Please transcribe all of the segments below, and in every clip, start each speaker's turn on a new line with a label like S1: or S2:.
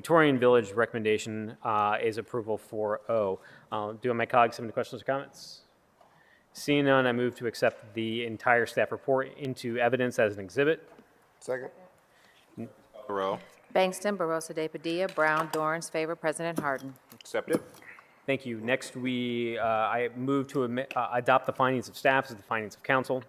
S1: Victorian Village recommendation uh, is approval 4-0. Uh, Do my colleagues have any questions or comments? Seeing none, I move to accept the entire staff report into evidence as an exhibit.
S2: Second?
S3: Row.
S4: Bangston, Barosa de Padilla, Brown, Dorans, favor President Harden.
S3: Accept it.
S1: Thank you. Next, we, uh, I move to admi- uh, adopt the findings of staff as the findings of council.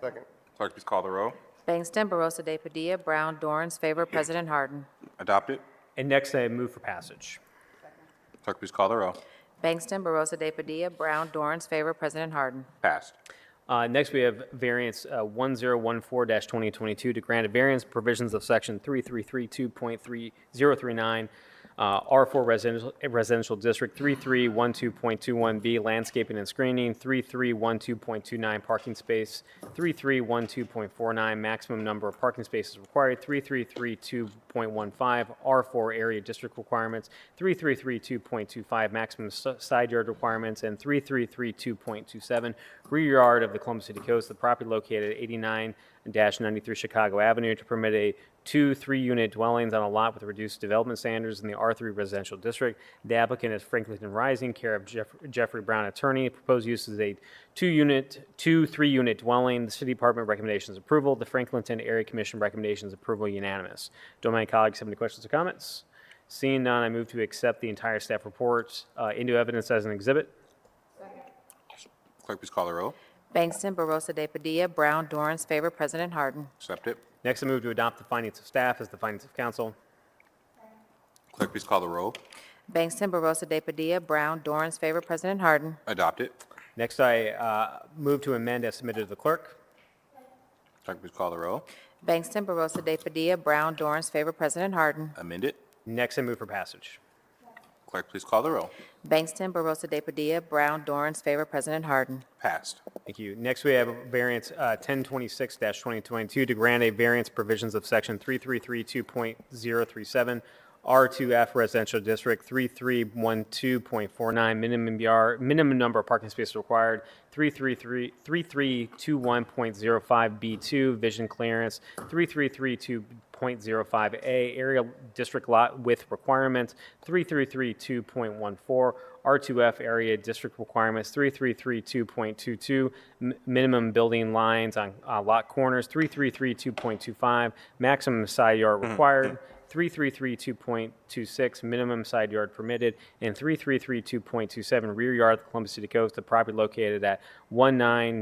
S2: Second?
S3: Clerk, please call the row.
S4: Bangston, Barosa de Padilla, Brown, Dorans, favor President Harden.
S3: Adopt it.
S1: And next, I move for passage.
S3: Clerk, please call the row.
S4: Bangston, Barosa de Padilla, Brown, Dorans, favor President Harden.
S3: Passed.
S1: Uh, Next, we have variance uh, 1014-2022 to grant a variance provisions of section 3332.3039, uh, R4 residential- residential district, 3312.21B landscaping and screening, 3312.29 parking space, 3312.49 maximum number of parking spaces required, 3332.15 R4 area district requirements, 3332.25 maximum s- side yard requirements, and 3332.27 rear yard of the Columbus City Coast, the property located at 89-93 Chicago Avenue to permit a two, three-unit dwellings on a lot with reduced development standards in the R3 residential district. The applicant is Franklinton Rising, care of Jeff- Jeffrey Brown Attorney. Proposed use is a two-unit, two, three-unit dwelling. The city department recommendations approval. The Franklinton Area Commission recommendations approval unanimous. Do my colleagues have any questions or comments? Seeing none, I move to accept the entire staff report uh, into evidence as an exhibit.
S3: Clerk, please call the row.
S4: Bangston, Barosa de Padilla, Brown, Dorans, favor President Harden.
S3: Accept it.
S1: Next, I move to adopt the findings of staff as the findings of council.
S3: Clerk, please call the row.
S4: Bangston, Barosa de Padilla, Brown, Dorans, favor President Harden.
S3: Adopt it.
S1: Next, I uh, move to amend as submitted to the clerk.
S3: Clerk, please call the row.
S4: Bangston, Barosa de Padilla, Brown, Dorans, favor President Harden.
S3: Amend it.
S1: Next, I move for passage.
S3: Clerk, please call the row.
S4: Bangston, Barosa de Padilla, Brown, Dorans, favor President Harden.
S3: Passed.
S1: Thank you. Next, we have variance uh, 1026-2022 to grant a variance provisions of section 3332.037, R2F Residential District, 3312.49, minimum yard, minimum number of parking spaces required, 333 3321.05B2, vision clearance, 3332.05A, area district lot width requirements, 3332.14, R2F area district requirements, 3332.22, m- minimum building lines on uh, lot corners, 3332.25, maximum side yard required, 3332.26, minimum side yard permitted, and 3332.27, rear yard of the Columbus City Coast, the property located at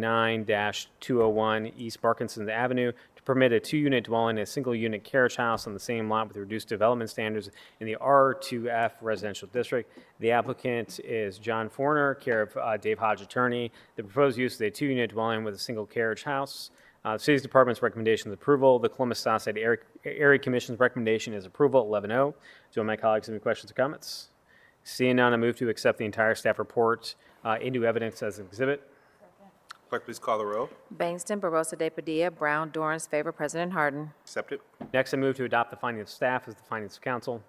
S1: 199-201 East Parkinson Avenue, to permit a two-unit dwelling and a single-unit carriage house on the same lot with reduced development standards in the R2F residential district. The applicant is John Forner, care of uh, Dave Hodge Attorney. The proposed use is a two-unit dwelling with a single carriage house. Uh, City's Department's recommendation is approval. The Columbus Southside Area- Area Commission's recommendation is approval, 11-0. Do my colleagues have any questions or comments? Seeing none, I move to accept the entire staff report uh, into evidence as an exhibit.
S3: Clerk, please call the row.
S4: Bangston, Barosa de Padilla, Brown, Dorans, favor President Harden.
S3: Accept it.
S1: Next, I move to adopt the findings of staff as the findings of council.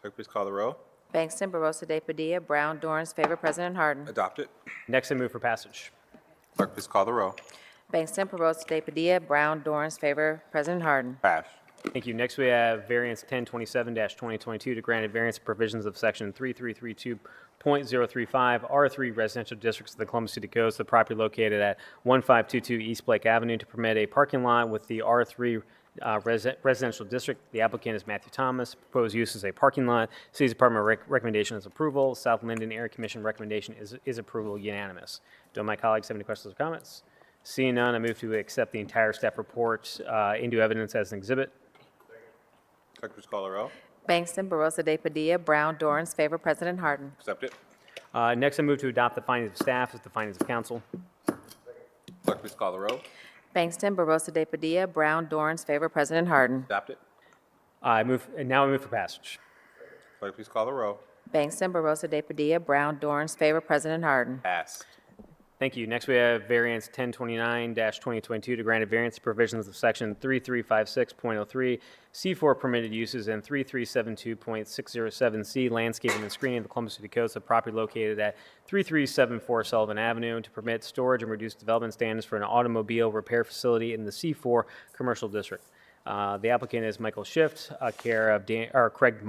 S3: Clerk, please call the row.
S4: Bangston, Barosa de Padilla, Brown, Dorans, favor President Harden.
S3: Adopt it.
S1: Next, I move for passage.
S3: Clerk, please call the row.
S4: Bangston, Barosa de Padilla, Brown, Dorans, favor President Harden.
S3: Passed.
S1: Thank you. Next, we have variance 1027-2022 to grant a variance provisions of section 3332.035 R3 residential districts of the Columbus City Coast, the property located at 1522 East Blake Avenue to permit a parking lot with the R3 uh, resi- residential district. The applicant is Matthew Thomas. Proposed use is a parking lot. City's Department rec- recommendation is approval. South Linden Area Commission recommendation is is approval unanimous. Do my colleagues have any questions or comments? Seeing none, I move to accept the entire staff report uh, into evidence as an exhibit.
S3: Clerk, please call the row.
S4: Bangston, Barosa de Padilla, Brown, Dorans, favor President Harden.
S3: Accept it.
S1: Uh, Next, I move to adopt the findings of staff as the findings of Uh, council.
S3: Clerk, please call the row.
S4: Bangston, Barosa de Padilla, Brown, Dorans, favor President Harden.
S3: Adopt it.
S1: I move, and now I move for passage.
S3: Clerk, please call the row.
S4: Bangston, Barosa de Padilla, Brown, Dorans, favor President Harden.
S3: Passed.
S1: Thank you. Next, we have variance 1029-2022 to grant a variance to provisions of section 3356.03, C4 permitted uses, and 3372.607C landscaping and screening of the Columbus City Coast, a property located at 3374 Sullivan Avenue, to permit storage and reduce development standards for an automobile repair facility in the C4 commercial district. Uh, The applicant is Michael Schiff, uh, care of Dan, or Craig